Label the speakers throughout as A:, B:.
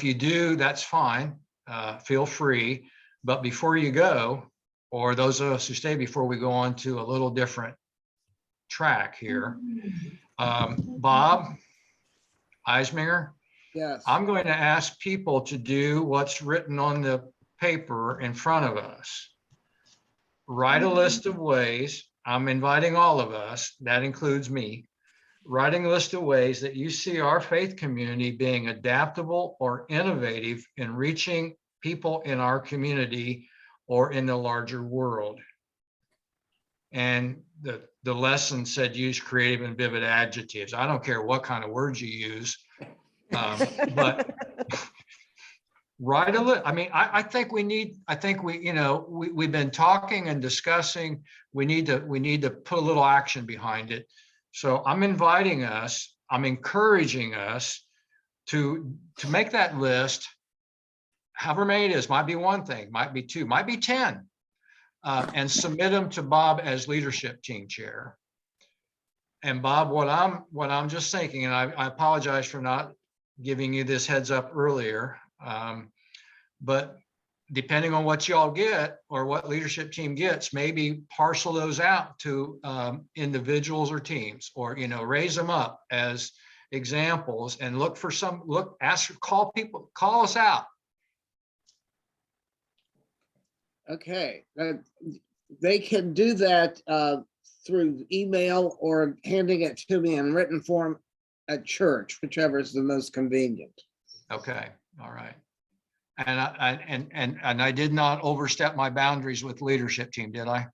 A: If you do, that's fine. Uh, Feel free. But before you go, or those of us who stay before we go on to a little different track here, um, Bob Eisminger,
B: Yes.
A: I'm going to ask people to do what's written on the paper in front of us. Write a list of ways, I'm inviting all of us, that includes me, writing a list of ways that you see our faith community being adaptable or innovative in reaching people in our community or in the larger world. And the, the lesson said, use creative and vivid adjectives. I don't care what kind of words you use. Um, But write a li, I mean, I, I think we need, I think we, you know, we, we've been talking and discussing. We need to, we need to put a little action behind it. So I'm inviting us, I'm encouraging us to, to make that list. However many it is, might be one thing, might be two, might be 10. uh, And submit them to Bob as leadership team chair. And Bob, what I'm, what I'm just thinking, and I, I apologize for not giving you this heads up earlier. um, But depending on what y'all get or what leadership team gets, maybe parcel those out to um, individuals or teams, or, you know, raise them up as examples and look for some, look, ask, call people, call us out.
B: Okay, uh, they can do that uh, through email or handing it to me in written form at church, whichever is the most convenient.
A: Okay, all right. And I, I- and, and, and I did not overstep my boundaries with leadership team, did I?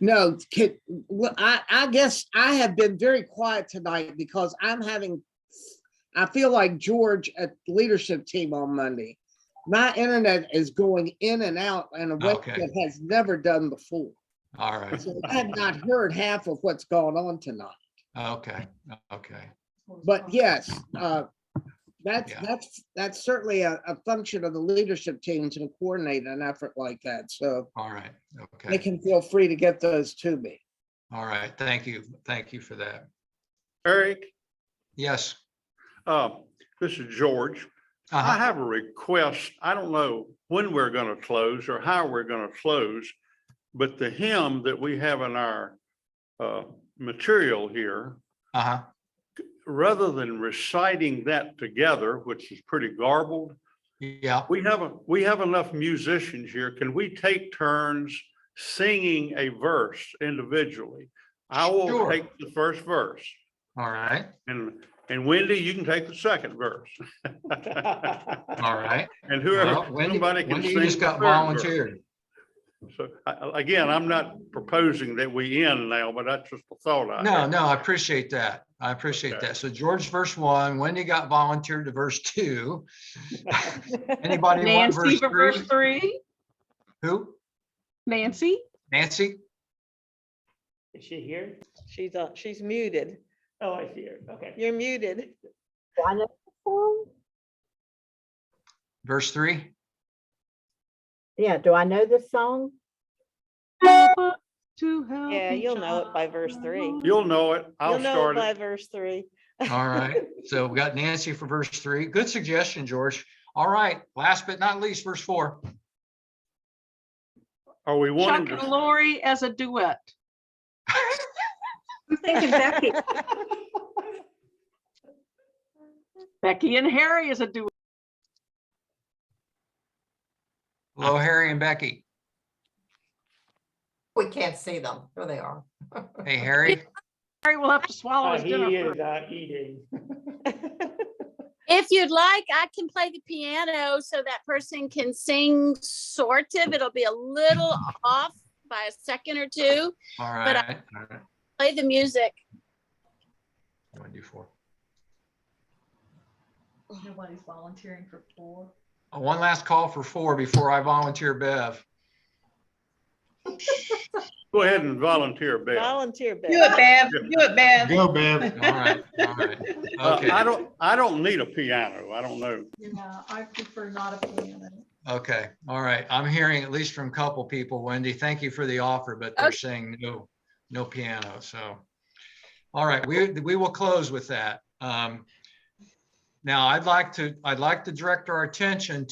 B: No, can, well, I, I guess I have been very quiet tonight because I'm having, I feel like George at leadership team on Monday. My internet is going in and out in a way
A: Okay.
B: that has never done before.
A: All right,
B: So I have not heard half of what's going on tonight.
A: okay, okay.
B: But yes, uh, that's,
A: Yeah.
B: that's, that's certainly a, a function of the leadership team to coordinate an effort like that. So
A: All right,
B: they
A: okay,
B: can feel free to get those to me.
A: all right, thank you, thank you for that.
C: Eric,
A: Yes.
C: uh, this is George. I
A: uh-huh,
C: have a request. I don't know when we're going to close or how we're going to close, but the hymn that we have in our uh, material here,
A: uh-huh,
C: rather than reciting that together, which is pretty garbled,
A: yeah,
C: we have, a- we have enough musicians here. Can we take turns singing a verse individually? I will
A: Sure.
C: take the first verse
A: all right,
C: and, and Wendy, you can take the second verse.
A: all right.
C: And whoever,
A: Well, Wendy,
C: somebody can
A: Wendy
C: sing.
A: you just
C: the
A: got
C: third verse.
A: volunteered.
C: So, I- I- Again, I'm not proposing that we end now, but that's just a thought I
A: No,
C: had.
A: no, I appreciate that. I appreciate
C: Okay.
A: that. So George, verse one, Wendy got volunteered to verse two. Anybody want
D: Nancy
A: verse
D: for verse
A: three?
D: three,
A: Who?
D: Nancy?
A: Nancy?
E: Is she here?
F: She's, uh, she's muted.
E: Oh, I see her. Okay.
F: You're muted.
A: Verse three?
G: Yeah, do I know this song?
D: To help.
F: Yeah,
D: each
F: you'll know it by verse three.
D: other.
C: You'll know it. I'll
F: You'll know it
C: start
F: by
C: it.
F: verse three.
A: All right, so we got Nancy for verse three. Good suggestion, George. All right, last but not least, verse four.
C: Are we wanting
D: Chuck and
C: to,
D: Lori as a duet.
H: I'm thinking Becky.
D: Becky and Harry as a duet.
A: Hello, Harry and Becky.
H: We can't see them. There they are.
A: Hey, Harry,
D: Harry will have to swallow
E: Uh,
D: his
E: He
D: dinner.
E: is
D: first.
E: uh, eating.
I: If you'd like, I can play the piano so that person can sing sort of. It'll be a little off by a second or two.
A: all
I: But I-
A: right. all right.
I: Play the music.
A: You wanna do four?
J: Nobody's volunteering for four.
A: Uh, One last call for four before I volunteer Bev.
C: go ahead and volunteer, Bill.
F: Volunteer, Bev.
K: Do it, Bev. Do it, Bev.
C: Go, Bill.
A: All right, all right. Okay.
C: Uh, I don't, I don't need a piano. I don't know.
J: Yeah, I prefer not a piano.
A: Okay, all right. I'm hearing at least from a couple people, Wendy, thank you for the offer, but they're
I: Okay.
A: saying no, no piano, so. All right, we, we will close with that. Um, Now, I'd like to, I'd like to direct our attention